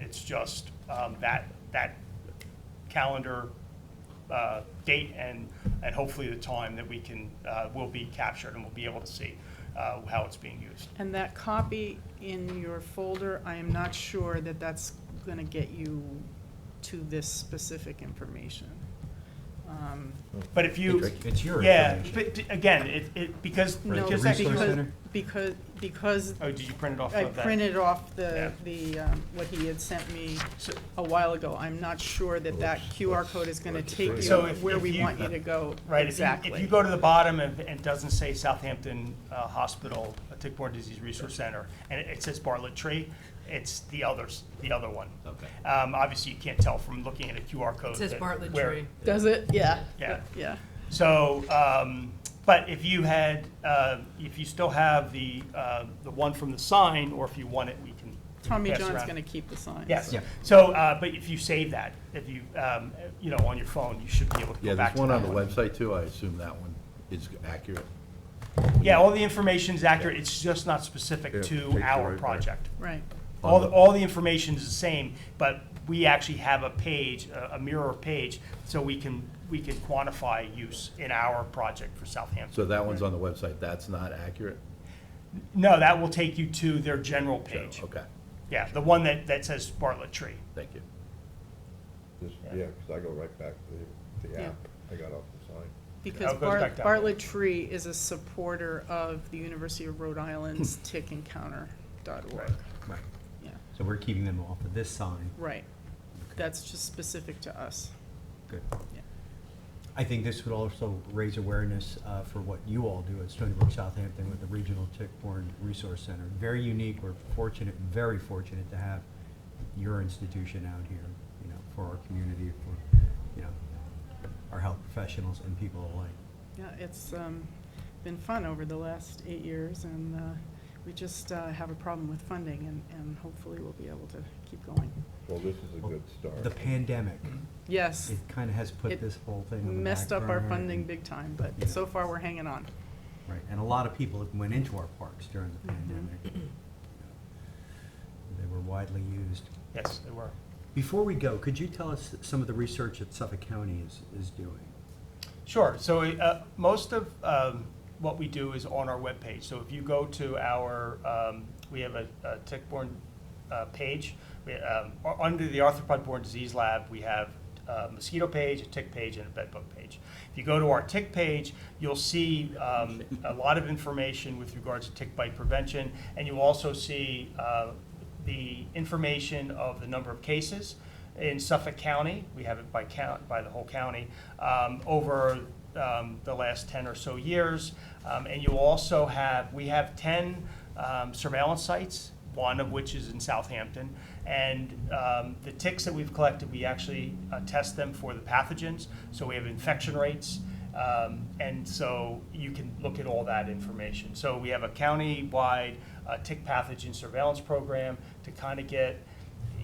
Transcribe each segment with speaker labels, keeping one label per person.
Speaker 1: It's just um, that, that calendar uh, date and, and hopefully the time that we can, uh, will be captured and we'll be able to see uh, how it's being used.
Speaker 2: And that copy in your folder, I am not sure that that's going to get you to this specific information. Um,
Speaker 1: But if you,
Speaker 3: It's your
Speaker 1: yeah,
Speaker 3: information.
Speaker 1: but d- again, it, it, because,
Speaker 2: No,
Speaker 1: just that-
Speaker 3: Resource
Speaker 2: because,
Speaker 3: center?
Speaker 2: because, because
Speaker 1: oh, did you print it off
Speaker 2: I
Speaker 1: of that?
Speaker 2: printed off the,
Speaker 1: Yeah.
Speaker 2: the, um, what he had sent me
Speaker 1: So-
Speaker 2: a while ago. I'm not sure that that QR code is going to take you
Speaker 1: So if-
Speaker 2: where
Speaker 1: if
Speaker 2: we
Speaker 1: you-
Speaker 2: want you to go
Speaker 1: Right, if you,
Speaker 2: exactly.
Speaker 1: if you go to the bottom and and it doesn't say Southampton uh, Hospital, uh, Tick-Borne Disease Resource Center, and it- it says Bartlett Tree, it's the others, the other one.
Speaker 3: Okay.
Speaker 1: Um, Obviously, you can't tell from looking at a QR code.
Speaker 4: It says
Speaker 1: that-
Speaker 4: Bartlett
Speaker 1: where-
Speaker 4: Tree.
Speaker 2: Does it? Yeah.
Speaker 1: Yeah.
Speaker 2: Yeah.
Speaker 1: So, um, but if you had, uh, if you still have the, uh, the one from the sign, or if you want it, we can. we can
Speaker 2: Tommy
Speaker 1: pass
Speaker 2: John's
Speaker 1: around.
Speaker 2: going to keep the signs.
Speaker 1: Yes,
Speaker 3: Yeah.
Speaker 1: so, uh, but if you save that, if you, um, you know, on your phone, you should be able to
Speaker 5: Yeah,
Speaker 1: go back
Speaker 5: there's
Speaker 1: to that
Speaker 5: one on the website too, I assume that one is accurate.
Speaker 1: Yeah, all the information's accurate, it's just not specific
Speaker 5: Yeah, take
Speaker 1: to
Speaker 5: the right
Speaker 1: our
Speaker 5: part.
Speaker 1: project.
Speaker 2: Right.
Speaker 1: All, the- all the information's the same, but we actually have a page, a a mirror page, so we can, we can quantify use in our project for Southampton.
Speaker 5: So that one's on the website, that's not accurate?
Speaker 1: No, that will take you to their general
Speaker 5: So,
Speaker 1: page.
Speaker 5: Okay,
Speaker 1: Yeah, the one that, that says Bartlett Tree.
Speaker 5: thank you.
Speaker 6: Just, yeah, because I go right back to the, the
Speaker 2: Yeah.
Speaker 6: app. I got off the sign.
Speaker 2: Because
Speaker 1: It goes
Speaker 2: Bar-
Speaker 1: back down.
Speaker 2: Bartlett Tree is a supporter of the University of Rhode Island's tickencounter.org.
Speaker 1: Right.
Speaker 3: Right.
Speaker 2: Yeah,
Speaker 3: So we're keeping them off of this sign.
Speaker 2: right. That's just specific to us.
Speaker 3: Good.
Speaker 2: Yeah.
Speaker 3: I think this would also raise awareness uh, for what you all do at Stony Brook Southampton with the Regional Tick-Borne Resource Center. Very unique. We're fortunate, very fortunate to have your institution out here, you know, for our community, for, you know, our health professionals and people alike.
Speaker 2: Yeah, it's um, been fun over the last eight years, and uh, we just uh, have a problem with funding, and- and hopefully we'll be able to keep going.
Speaker 6: Well, this is a good
Speaker 3: The
Speaker 6: start.
Speaker 3: pandemic,
Speaker 2: Yes,
Speaker 3: it kind of has
Speaker 2: It
Speaker 3: put this whole thing on the
Speaker 2: messed up
Speaker 3: back
Speaker 2: our
Speaker 3: burner
Speaker 2: funding
Speaker 3: and-
Speaker 2: big time, but so far we're hanging on.
Speaker 3: Right, and a lot of people went into our parks during the
Speaker 2: Mhm.
Speaker 3: pandemic. you know. They were widely used.
Speaker 1: Yes, they were.
Speaker 3: Before we go, could you tell us some of the research that Suffolk County is, is doing?
Speaker 1: Sure. So uh, most of um, what we do is on our webpage. So if you go to our, um, we have a, a tick-borne uh, page. We, um, u- under the arthropod-borne disease lab, we have a mosquito page, a tick page, and a bed bug page. If you go to our tick page, you'll see um, a lot of information with regards to tick bite prevention, and you'll also see uh, the information of the number of cases in Suffolk County, we have it by count, by the whole county, um, over um, the last 10 or so years. Um, And you also have, we have 10 um, surveillance sites, one of which is in Southampton. And um, the ticks that we've collected, we actually uh, test them for the pathogens, so we have infection rates. Um, And so you can look at all that information. So we have a county-wide uh, tick pathogen surveillance program to kind of get,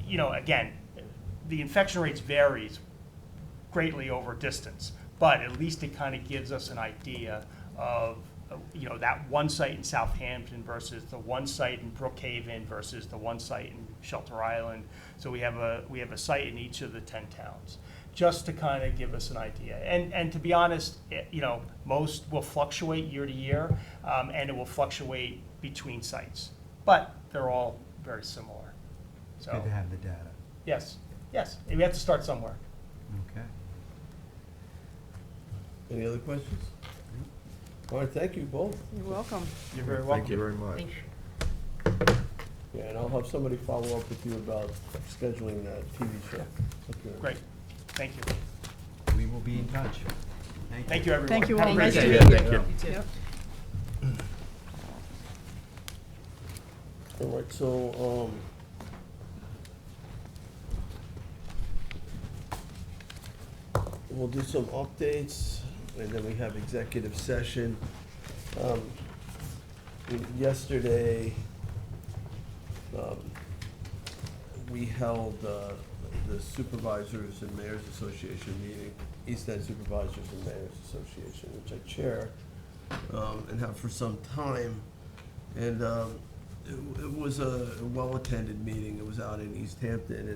Speaker 1: you know, again, the infection rates varies greatly over distance, but at least it kind of gives us an idea of, uh, you know, that one site in Southampton versus the one site in Brookhaven versus the one site in Shelter Island. So we have a, we have a site in each of the ten towns, just to kind of give us an idea. And, and to be honest, it- you know, most will fluctuate year to year, um, and it will fluctuate between sites. But they're all very similar,
Speaker 3: It's
Speaker 1: so.
Speaker 3: good to have the data.
Speaker 1: Yes, yes, we have to start somewhere.
Speaker 3: Okay.
Speaker 7: Any other questions? All right, thank you both.
Speaker 2: You're welcome.
Speaker 1: You're very
Speaker 6: Thank you
Speaker 1: welcome.
Speaker 6: very much.
Speaker 4: Thank you.
Speaker 7: Yeah, and I'll have somebody follow up with you about scheduling that TV show.
Speaker 1: Great, thank you.
Speaker 3: We will be in touch. Thank you.
Speaker 1: Thank you, everyone.
Speaker 2: Thank you
Speaker 1: Have a
Speaker 2: all.
Speaker 1: great
Speaker 2: Nice to
Speaker 1: day.
Speaker 2: meet you.
Speaker 5: you.
Speaker 4: You too.
Speaker 2: Yep.
Speaker 7: All right, so, um, um, we'll do some updates, and then we have executive session. Um, Yesterday, um, we held uh, the Supervisors and Mayors Association meeting, East End Supervisors and Mayors Association, which I chair, um, and have for some time. And um, it it was a well-attended meeting. It was out in East Hampton,